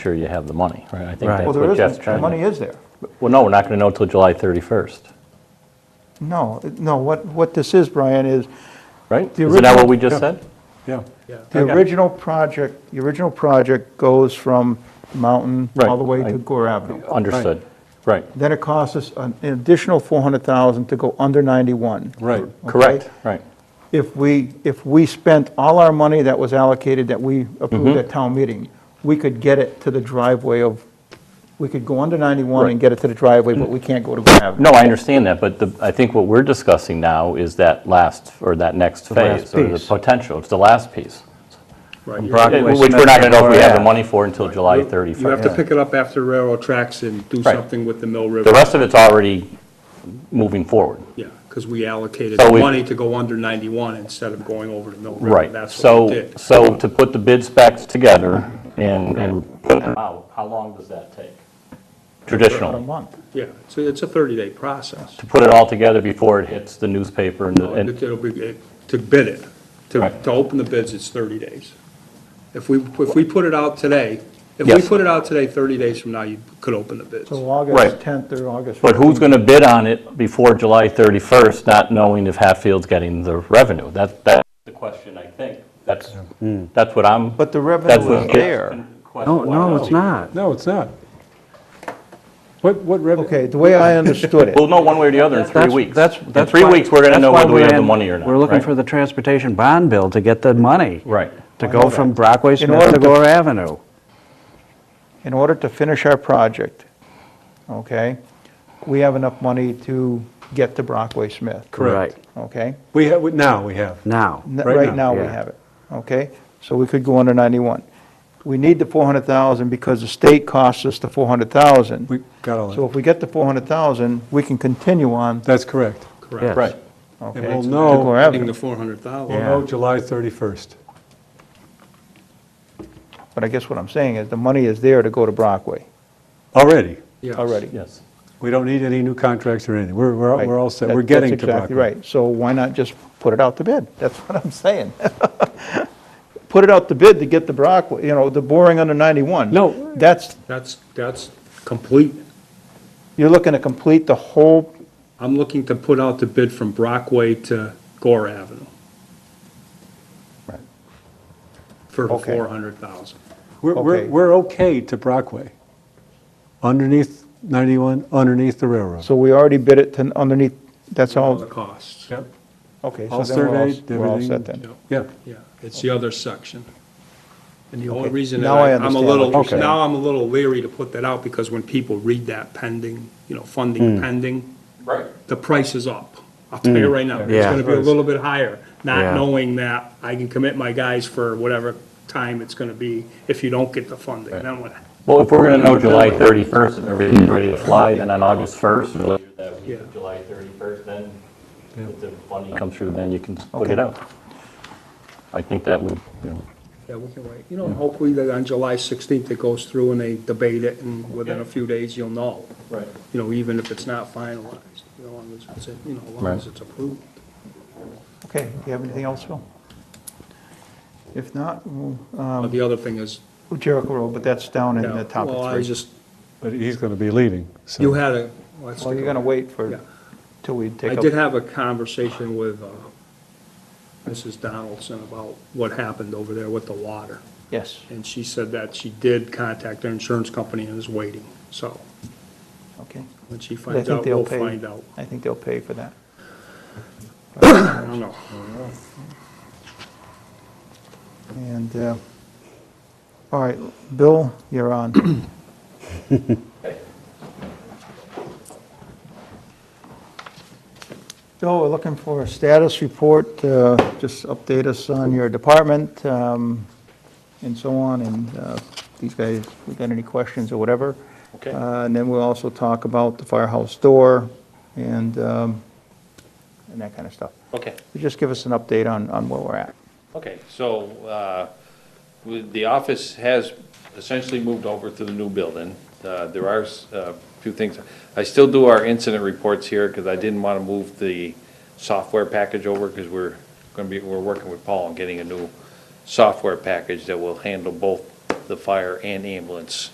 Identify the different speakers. Speaker 1: sure you have the money, right? I think
Speaker 2: Right.
Speaker 1: that's
Speaker 2: Well,
Speaker 1: what
Speaker 3: Well, there
Speaker 1: Jeff's
Speaker 3: isn't, the
Speaker 1: trying
Speaker 3: money
Speaker 1: to-
Speaker 3: is there.
Speaker 1: Well, no, we're not going to know till July 31st,
Speaker 3: No, it- no, what, what this is, Brian, is
Speaker 1: right?
Speaker 3: The
Speaker 1: Isn't that what
Speaker 3: original-
Speaker 1: we just
Speaker 2: Yeah.
Speaker 1: said?
Speaker 2: Yeah.
Speaker 3: the
Speaker 1: Okay.
Speaker 3: original project, the original project goes from Mountain all
Speaker 1: Right,
Speaker 3: the way
Speaker 1: I-
Speaker 3: to Gore Avenue.
Speaker 1: Understood, right,
Speaker 3: Then it costs us an additional 400,000 to go under 91.
Speaker 2: Right.
Speaker 1: correct, right,
Speaker 3: If we, if we spent all our money that was allocated that we
Speaker 1: Mm-hmm.
Speaker 3: approved at town meeting, we could get it to the driveway of, we could go under 91 and
Speaker 1: Right.
Speaker 3: get it to the driveway, but we can't go to Gore Avenue.
Speaker 1: No, I understand that, but the, I think what we're discussing now is that last, or that next phase,
Speaker 2: last
Speaker 1: or the
Speaker 2: piece.
Speaker 1: potential, it's the last piece,
Speaker 4: Right,
Speaker 1: Uh,
Speaker 4: you're-
Speaker 2: Broadway,
Speaker 1: which we're not going to know if we have the
Speaker 2: Smithfield,
Speaker 1: money for until July
Speaker 4: You have to
Speaker 1: 31st.
Speaker 4: pick it up after railroad tracks and do
Speaker 1: Right.
Speaker 4: something with the Mill River.
Speaker 1: The rest of it's already moving forward.
Speaker 4: Yeah, because we allocated
Speaker 1: So
Speaker 4: the
Speaker 1: we-
Speaker 4: money to go under 91 instead of going over to Mill River.
Speaker 1: Right,
Speaker 4: That's what we
Speaker 1: so,
Speaker 4: did.
Speaker 1: so to put the bid specs together and, and put them out, how long does that take?
Speaker 3: A
Speaker 1: Traditionally,
Speaker 3: month.
Speaker 4: Yeah, so it's a 30-day process.
Speaker 1: to put it all together before it hits the newspaper and, the- and,
Speaker 4: It'll be, to bid it, to,
Speaker 1: Right.
Speaker 4: to open the bids, it's 30 days. If we, if we put it out today, if we
Speaker 1: Yes.
Speaker 4: put it out today, 30 days from now, you could open the bids.
Speaker 3: So
Speaker 1: Right.
Speaker 3: August 10th or August 15th.
Speaker 1: but who's going to bid on it before July 31st, not knowing if Hatfield's getting the revenue? That, that's the question, I think. That's, that's what I'm.
Speaker 3: Hmm. But the
Speaker 1: that's
Speaker 3: revenue
Speaker 1: what-
Speaker 3: is there.
Speaker 5: No, no, it's not.
Speaker 2: No, it's not. What, what revenue?
Speaker 3: Okay, the way I understood it.
Speaker 1: We'll know one way or the other in three
Speaker 5: That's-
Speaker 1: weeks.
Speaker 5: That's,
Speaker 1: In
Speaker 5: that's
Speaker 1: three
Speaker 5: why-
Speaker 1: weeks, we're going to
Speaker 5: that's
Speaker 1: know
Speaker 5: why
Speaker 1: whether we
Speaker 5: we're
Speaker 1: have the
Speaker 5: in-
Speaker 1: money or not.
Speaker 5: We're looking
Speaker 1: right?
Speaker 5: for the transportation bond bill to get the money.
Speaker 1: Right.
Speaker 5: To go from Brockway Smith
Speaker 3: order
Speaker 5: to
Speaker 3: to-
Speaker 5: Gore Avenue.
Speaker 3: in order to finish our project, okay, we have enough money to get to Brockway Smith.
Speaker 2: Correct.
Speaker 5: Right,
Speaker 3: Okay?
Speaker 2: We have, now we have.
Speaker 5: Now.
Speaker 3: N-
Speaker 2: Right
Speaker 3: Right
Speaker 2: now,
Speaker 3: now, we
Speaker 5: yeah.
Speaker 3: have it, okay? So we could go under 91. We need the 400,000 because the state costs us the 400,000.
Speaker 2: We got all
Speaker 3: So
Speaker 2: that.
Speaker 3: if we get the 400,000, we can continue on,
Speaker 2: That's correct.
Speaker 4: Correct.
Speaker 5: Yes.
Speaker 1: Right.
Speaker 3: okay?
Speaker 2: And we'll
Speaker 3: to
Speaker 2: know-
Speaker 3: Gore
Speaker 4: Getting the
Speaker 3: Avenue.
Speaker 4: 400,000.
Speaker 2: We'll know July 31st.
Speaker 3: But I guess what I'm saying is the money is there to go to Brockway
Speaker 2: Already.
Speaker 4: Yes.
Speaker 3: already.
Speaker 1: Yes.
Speaker 2: We don't need any new contracts or anything. We're, we're,
Speaker 3: Right.
Speaker 2: we're all set.
Speaker 3: That-
Speaker 2: We're getting to
Speaker 3: That's exactly
Speaker 2: Brockway.
Speaker 3: right. So why not just put it out to bid? That's what I'm saying. Put it out to bid to get the Brockway, you know, the boring under 91.
Speaker 2: No.
Speaker 3: That's,
Speaker 4: That's, that's complete.
Speaker 3: you're looking to complete the whole,
Speaker 4: I'm looking to put out the bid from Brockway to Gore Avenue. For the
Speaker 3: Okay.
Speaker 4: 400,000.
Speaker 2: We're, we're,
Speaker 3: Okay.
Speaker 2: we're okay to Brockway. Underneath 91, underneath the railroad.
Speaker 3: so we already bid it to underneath, that's
Speaker 4: All the
Speaker 3: all,
Speaker 4: costs.
Speaker 2: Yep.
Speaker 3: okay. so
Speaker 2: All
Speaker 3: then we're
Speaker 2: surveyed,
Speaker 3: We're all set
Speaker 2: everything.
Speaker 3: then.
Speaker 2: Yeah.
Speaker 4: Yeah, it's the other section. And the only
Speaker 3: Okay,
Speaker 4: reason that
Speaker 3: now I
Speaker 4: I- I'm a
Speaker 3: understand
Speaker 4: little,
Speaker 3: what you're saying.
Speaker 4: now I'm a little leery to put that out because when people read that pending, you know, funding
Speaker 3: Hmm.
Speaker 4: pending,
Speaker 1: Right.
Speaker 4: the price is up. I'll tell you right now, it's
Speaker 5: Yeah.
Speaker 4: gonna be a little bit higher,
Speaker 5: Yeah.
Speaker 4: not knowing that I can commit my guys for whatever time it's gonna be if you don't get the funding. Then what,
Speaker 1: Well, if we're going to know July 31st, if everything's ready to fly, then on August 1st, or later that week,
Speaker 4: Yeah.
Speaker 1: July 31st, then if the funding comes through, then you can put it out. I think that would, you know,
Speaker 4: yeah, we can wait. You know, hopefully that on July sixteenth it goes through and they debate it and within a few days you'll know.
Speaker 1: Right.
Speaker 4: You know, even if it's not finalized, you know, as long as it's, you know, as long as
Speaker 1: Right.
Speaker 4: it's approved.
Speaker 3: Okay, do you have anything else, Phil? If not, we'll, um,
Speaker 4: But The other thing is,
Speaker 3: Jericho Road, but that's down in the top
Speaker 4: Well, I
Speaker 3: of three.
Speaker 4: just,
Speaker 2: But he's going to be leaving, so.
Speaker 4: you had a. well,
Speaker 3: Well, you're going to wait for,
Speaker 4: Yeah.
Speaker 3: till we take
Speaker 4: I
Speaker 3: up.
Speaker 4: did have a conversation with uh, Mrs. Donaldson about what happened over there with the water.
Speaker 3: Yes,
Speaker 4: And she said that she did contact their insurance company and is waiting. So
Speaker 3: okay.
Speaker 4: when she
Speaker 3: But I
Speaker 4: finds
Speaker 3: think
Speaker 4: out,
Speaker 3: they'll
Speaker 4: we'll
Speaker 3: pay.
Speaker 4: find out.
Speaker 3: I think they'll pay for that.
Speaker 4: I don't know.
Speaker 3: And, uh, all right, Bill, you're on. Bill, we're looking for a status report, uh, just update us on your department um, and so on, and uh, these guys, if we got any questions or whatever.
Speaker 1: Okay.
Speaker 3: Uh, And then we'll also talk about the firehouse door and, um, and that kind of stuff.
Speaker 6: Okay,
Speaker 3: Just give us an update on, on where we're at.
Speaker 6: okay, so, uh, with- the office has essentially moved over to the new building. Uh, there are, s- uh, few things, I still do our incident reports here, because I didn't want to move the software package over, because we're gonna be, we're working with Paul on getting a new software package that will handle both the fire and ambulance